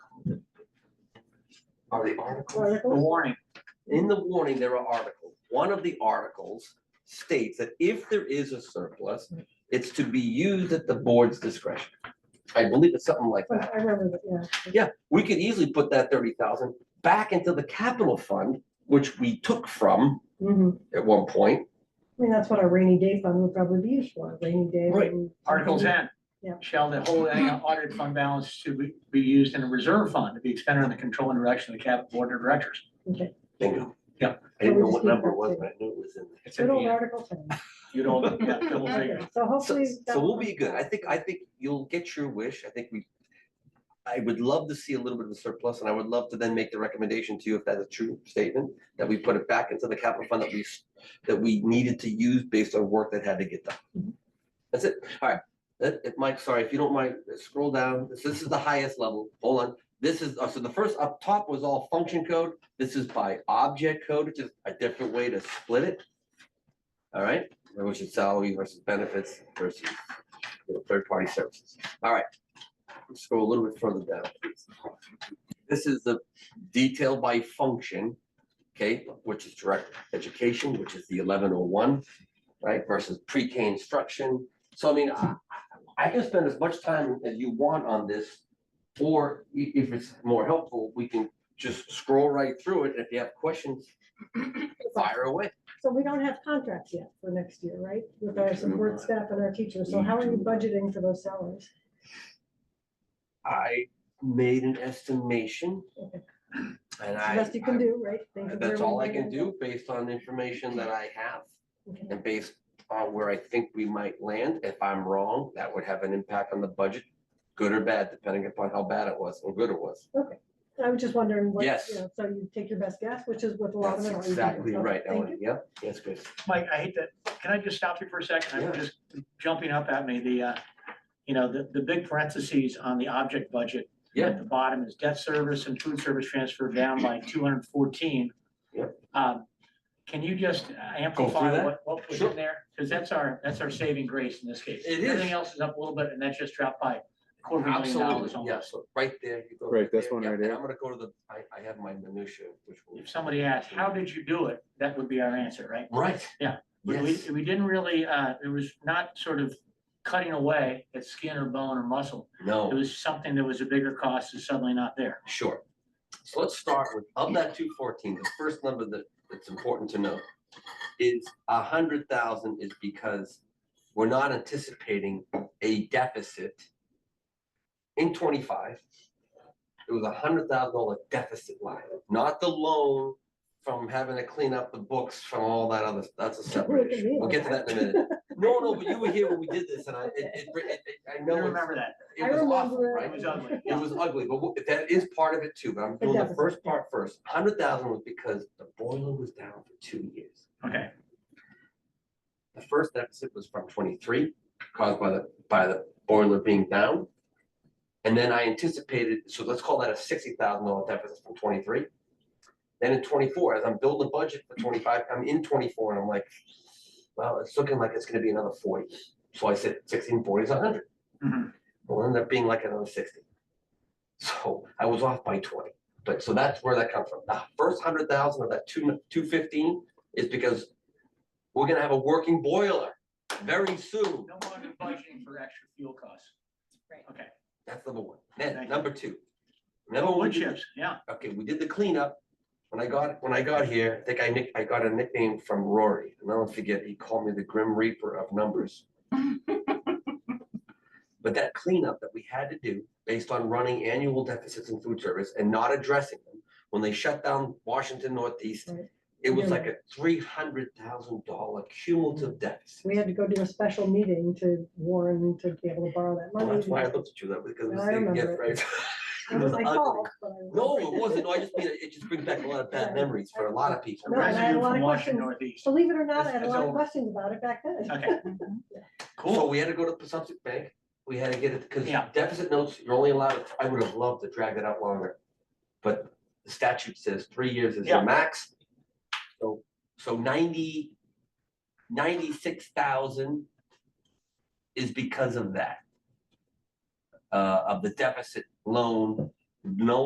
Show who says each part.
Speaker 1: are the articles.
Speaker 2: Article?
Speaker 3: The warning,
Speaker 1: In the warning, there are articles. One of the articles states that if there is a surplus, it's to be used at the board's discretion. I believe it's something like that.
Speaker 2: I remember that, yeah.
Speaker 1: Yeah, we could easily put that thirty thousand back into the capital fund, which we took from
Speaker 2: Mhm.
Speaker 1: at one point.
Speaker 2: I mean, that's what our rainy day fund would probably be used for, rainy day.
Speaker 1: Right.
Speaker 2: and-
Speaker 3: Article ten.
Speaker 2: Yeah.
Speaker 3: Shall the whole annual audit fund balance to be, be used in a reserve fund to be expended on the control and direction of the cap board of directors?
Speaker 2: Okay,
Speaker 1: Bingo.
Speaker 3: Yeah.
Speaker 1: I didn't know what number it was, but I knew it was in there.
Speaker 3: It's at
Speaker 2: good
Speaker 3: the
Speaker 2: old
Speaker 3: end.
Speaker 2: Article ten.
Speaker 3: You don't, yeah, double figures.
Speaker 2: Okay, So
Speaker 1: So,
Speaker 2: hopefully.
Speaker 1: so
Speaker 2: that'll
Speaker 1: we'll
Speaker 2: come
Speaker 1: be good. I
Speaker 2: back.
Speaker 1: think, I think you'll get your wish. I think we, I would love to see a little bit of a surplus and I would love to then make the recommendation to you if that's a true statement, that we put it back into the capital fund that we, s- that we needed to use based on work that had to get done.
Speaker 2: Mhm.
Speaker 1: That's it. All right. That, if Mike, sorry, if you don't mind, uh, scroll down. This, this is the highest level. Hold on. This is, uh, so the first up top was all function code. This is by object code, which is a different way to split it. All right, which is salary versus benefits versus you know, third-party services. All right. Let's go a little bit further down. please. This is the detail by function, okay, which is direct education, which is the eleven oh one, right, versus pre-K instruction. So I mean, I, I can spend as much time as you want on this, or i- if it's more helpful, we can just scroll right through it. and If you have questions, fire away.
Speaker 2: So we don't have contracts yet for next year, right? With our support staff and our teachers. So how are you budgeting for those salaries?
Speaker 1: I made an estimation.
Speaker 2: Okay.
Speaker 1: And
Speaker 2: It's the
Speaker 1: I.
Speaker 2: Best you
Speaker 1: I-
Speaker 2: can do, right? Think of where
Speaker 1: That's
Speaker 2: we
Speaker 1: all I
Speaker 2: might
Speaker 1: can
Speaker 2: end
Speaker 1: do based on the information that I have
Speaker 2: up. Okay.
Speaker 1: and based on where I think we might land. If I'm wrong, that would have an impact on the budget, good or bad, depending upon how bad it was or good it was.
Speaker 2: I was just wondering what,
Speaker 1: Yes.
Speaker 2: you know, so you take your best guess, which is what a lot of
Speaker 1: That's
Speaker 2: them. are doing.
Speaker 1: exactly
Speaker 2: Okay,
Speaker 1: right,
Speaker 2: thank you.
Speaker 1: Ellen. Yep, that's good.
Speaker 3: Mike, I hate that. Can I just stop you for a second?
Speaker 1: Yeah.
Speaker 3: I'm just jumping up at me, the, uh, you know, the, the big parentheses on the object budget.
Speaker 1: Yeah.
Speaker 3: At the bottom is debt service and food service transfer down by two hundred and fourteen.
Speaker 1: Yep.
Speaker 3: Um, can you just amplify
Speaker 1: that?
Speaker 3: what, what was
Speaker 1: Sure.
Speaker 3: in there? Because that's our, that's our saving grace in this case.
Speaker 1: It is.
Speaker 3: Everything else is up a little bit and that just dropped by a quarter of a million dollars
Speaker 1: Absolutely, yeah,
Speaker 3: almost.
Speaker 1: so right there. you go
Speaker 4: Right, that's one
Speaker 1: yeah,
Speaker 4: right
Speaker 1: and
Speaker 4: there.
Speaker 1: I'm gonna go to the, I, I have my minutia, which will.
Speaker 3: If somebody asked, how did you do it? That would be our answer, right?
Speaker 1: Right.
Speaker 3: Yeah, We, we
Speaker 1: Yes,
Speaker 3: we didn't really, uh, it was not sort of cutting away at skin or bone or muscle. It
Speaker 1: no,
Speaker 3: was something that was a bigger cost is suddenly not there.
Speaker 1: sure. So let's start with, of that two fourteen, the first number that, that's important to note is a hundred thousand is because we're not anticipating a deficit in twenty-five. It was a hundred thousand dollar deficit line, not the loan from having to clean up the books from all that other, that's a
Speaker 2: Look
Speaker 1: separate
Speaker 2: at
Speaker 1: issue.
Speaker 2: me
Speaker 1: We'll
Speaker 2: like
Speaker 1: get to that in a minute. No, no, but you were here when we did this and I, it, it, it- it- I
Speaker 3: You
Speaker 1: know it's-
Speaker 3: remember that?
Speaker 1: it
Speaker 2: I
Speaker 1: was awful,
Speaker 2: remember.
Speaker 1: right?
Speaker 3: It was ugly.
Speaker 1: It was ugly, but wha- that is part of it too, but I'm doing the
Speaker 2: deficit,
Speaker 1: first
Speaker 2: yeah.
Speaker 1: part first. Hundred thousand was because the boiler was down for two years.
Speaker 3: Okay,
Speaker 1: The first deficit was from twenty-three, caused by the, by the boiler being down. And then I anticipated, so let's call that a sixty thousand dollar deficit from twenty-three. Then in twenty-four, as I'm building a budget for twenty-five, I'm in twenty-four and I'm like, well, it's looking like it's gonna be another forty. So I said sixteen forty is a hundred.
Speaker 3: Mhm.
Speaker 1: will end up being like another sixty. So I was off by twenty, but so that's where that comes from. The first hundred thousand of that two, two fifteen is because we're gonna have a working boiler very soon.
Speaker 3: no longer budgeting for extra fuel costs.
Speaker 5: Right.
Speaker 3: Okay,
Speaker 1: That's number one. Then,
Speaker 3: Thank you.
Speaker 1: number two. Remember when we
Speaker 3: wood
Speaker 1: did
Speaker 3: chips, yeah.
Speaker 1: okay, we did the cleanup. When I got, when I got here, I think I nick, I got a nickname from Rory, and I don't forget, he called me the Grim Reaper of numbers. But that cleanup that we had to do based on running annual deficits in food service and not addressing them, when they shut down Washington Northeast,
Speaker 2: Right.
Speaker 1: it was
Speaker 2: Yeah.
Speaker 1: like a three hundred thousand dollar cumulative deficit.
Speaker 2: We had to go do a special meeting to warn to be able to borrow that money.
Speaker 1: Well, that's why I looked at you that way, because it was
Speaker 2: No, I
Speaker 1: the- yeah,
Speaker 2: remember
Speaker 1: right.
Speaker 2: It was "Oh, my
Speaker 1: ugly.
Speaker 2: fault, but I was-
Speaker 1: No, it wasn't. No, I just mean, it it just brings back a lot of bad
Speaker 2: Right.
Speaker 1: memories for a lot of people.
Speaker 2: No, and I had a
Speaker 3: Residue
Speaker 2: lot of
Speaker 3: from Washington
Speaker 2: questions.
Speaker 3: Northeast.
Speaker 2: Believe it or not, I
Speaker 1: It's-
Speaker 2: had a
Speaker 1: it's
Speaker 2: lot of
Speaker 1: over.
Speaker 2: questions about it back then.
Speaker 3: Okay,
Speaker 1: So
Speaker 3: cool.
Speaker 1: we had to go to Pacific Bank, we had to get it, because
Speaker 3: Yeah.
Speaker 1: deficit notes, you're only allowed, I would have loved to drag it out longer. But the statute says three years is
Speaker 3: Yeah.
Speaker 1: the max. So, so ninety, ninety-six thousand is because of that. Uh, of the deficit loan, no